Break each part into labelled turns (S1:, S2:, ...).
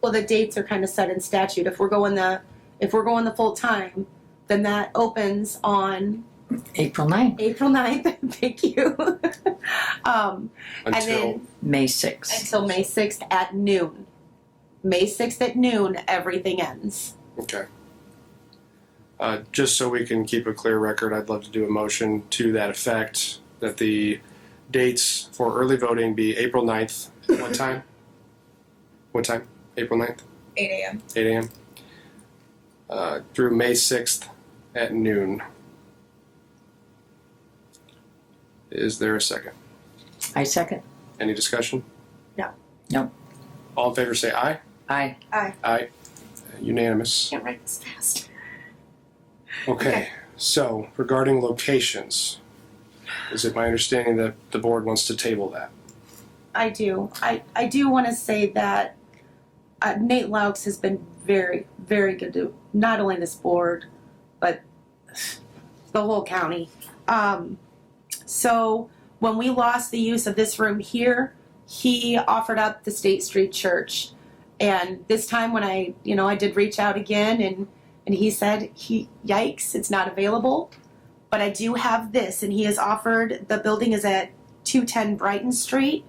S1: well, the dates are kind of set in statute. If we're going the, if we're going the full time, then that opens on
S2: April 9th,
S1: April 9th. Thank you. um, and
S3: until
S1: then
S2: May 6th.
S1: until May 6th at noon. May 6th at noon, everything ends.
S3: okay. Uh, just so we can keep a clear record, I'd love to do a motion to that effect that the dates for early voting be April 9th. What time? What time? April 9th,
S4: 8 a.m.
S3: 8 a.m. Uh, through May 6th at noon. Is there a second?
S2: I second.
S3: Any discussion?
S1: No.
S2: No.
S3: All in favor say aye.
S2: I,
S3: Aye. Unanimous.
S1: Can't write this fast.
S3: Okay, so regarding locations, is it my understanding that the board wants to table that?
S1: I do. I, I do want to say that uh, Nate Laux has been very, very good to not only this board, but the whole county. Um, so when we lost the use of this room here, he offered up the State Street Church. And this time when I, you know, I did reach out again and, and he said, he, yikes, it's not available. But I do have this, and he has offered, the building is at 210 Brighton Street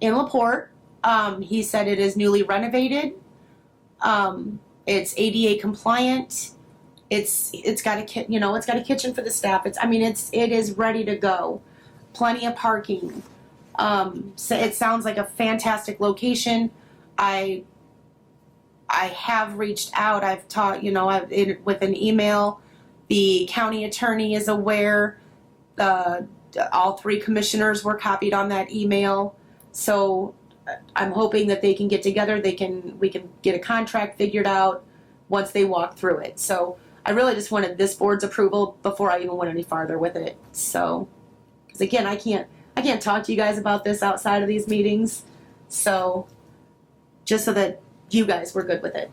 S1: in Laporte. Um, he said it is newly renovated. Um, it's ADA compliant. It's it's got a ki- you know it's got a kitchen for the staff. It's I mean it's it is ready to go. Plenty of parking. Um, so it sounds like a fantastic location. I I have reached out. I've taught you know I've in, with an email. The county attorney is aware. The all three commissioners were copied on that email. So uh, I'm hoping that they can get together, they can, we can get a contract figured out once they walk through it. So I really just wanted this board's approval before I even went any farther with it. So, because again, I can't, I can't talk to you guys about this outside of these meetings. So, just so that you guys were good with it.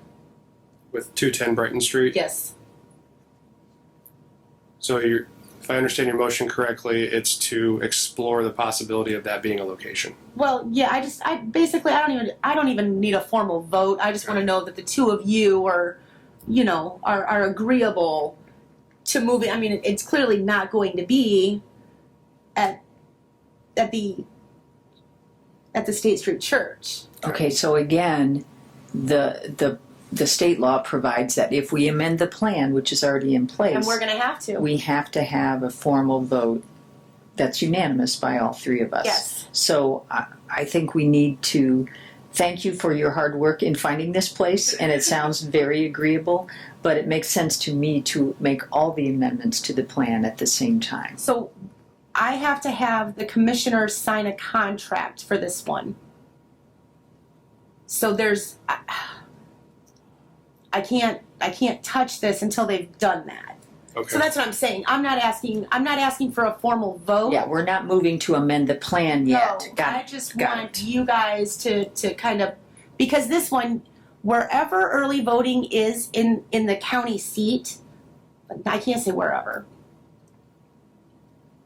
S3: With 210 Brighton Street?
S1: Yes,
S3: So you're, if I understand your motion correctly, it's to explore the possibility of that being a location.
S1: Well, yeah, I just I basically I don't even I don't even need a formal vote. I just want to
S3: Right.
S1: know that the two of you are, you know, are are agreeable to moving. I mean, it- it's clearly not going to be at at the at the State Street Church.
S2: okay, so again, the, the, the state law provides that if we amend the plan, which is already in
S1: And
S2: place,
S1: we're going to have to.
S2: we have to have a formal vote that's unanimous by all three of us.
S1: yes.
S2: So I, I think we need to thank you for your hard work in finding this place, and it sounds very agreeable, but it makes sense to me to make all the amendments to the plan at the same time.
S1: So I have to have the commissioners sign a contract for this one. So there's I, I can't I can't touch this until they've done that. So
S3: Okay.
S1: that's what I'm saying. I'm not asking I'm not asking for a formal vote.
S2: Yeah, we're not moving to amend the plan yet.
S1: No,
S2: Got
S1: I
S2: it.
S1: just
S2: Got
S1: want
S2: it.
S1: you guys to to kind of because this one, wherever early voting is in in the county seat, I can't say wherever.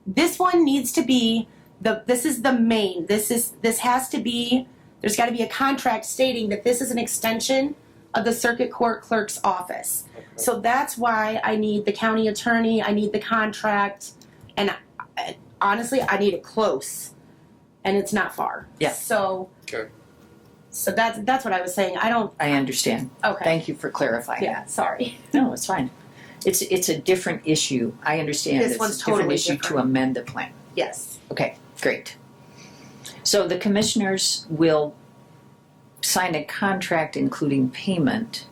S1: This one needs to be the this is the main. This is this has to be there's got to be a contract stating that this is an extension of the circuit court clerk's office. So that's why I need the county attorney, I need the contract, and I- I- honestly, I need it close, and it's not far.
S2: Yeah.
S1: So.
S3: Okay.
S1: So that's, that's what I was saying, I don't,
S2: I understand.
S1: okay,
S2: Thank you for clarifying
S1: yeah,
S2: that.
S1: sorry.
S2: No, it's fine. It's, it's a different issue. I understand.
S1: This
S2: it's
S1: one's
S2: a different
S1: totally
S2: issue to
S1: different.
S2: amend the plan.
S1: Yes,
S2: Okay, great. So the commissioners will sign a contract including payment.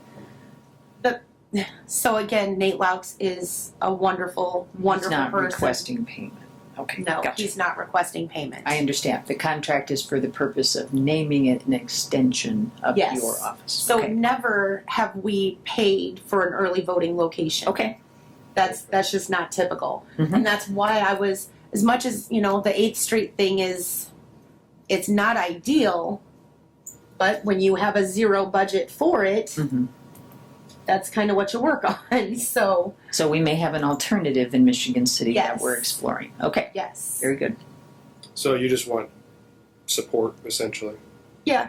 S1: so again, Nate Laux is a wonderful,
S2: He's
S1: wonderful
S2: not
S1: person.
S2: requesting payment. Okay,
S1: No,
S2: gotcha.
S1: he's not requesting payment.
S2: I understand. The contract is for the purpose of naming it an extension of
S1: Yes.
S2: your office.
S1: So
S2: okay.
S1: never have we paid for an early voting location.
S2: okay,
S1: that's that's just not typical
S2: Mhm.
S1: and that's why i was as much as you know the eighth street thing is it's not ideal but when you have a zero budget for it
S2: Mhm.
S1: that's kind of what you work on so
S2: so we may have an alternative in Michigan City
S1: Yes.
S2: that we're exploring. Okay,
S1: yes
S2: very good.
S3: So you just want support essentially?
S1: yeah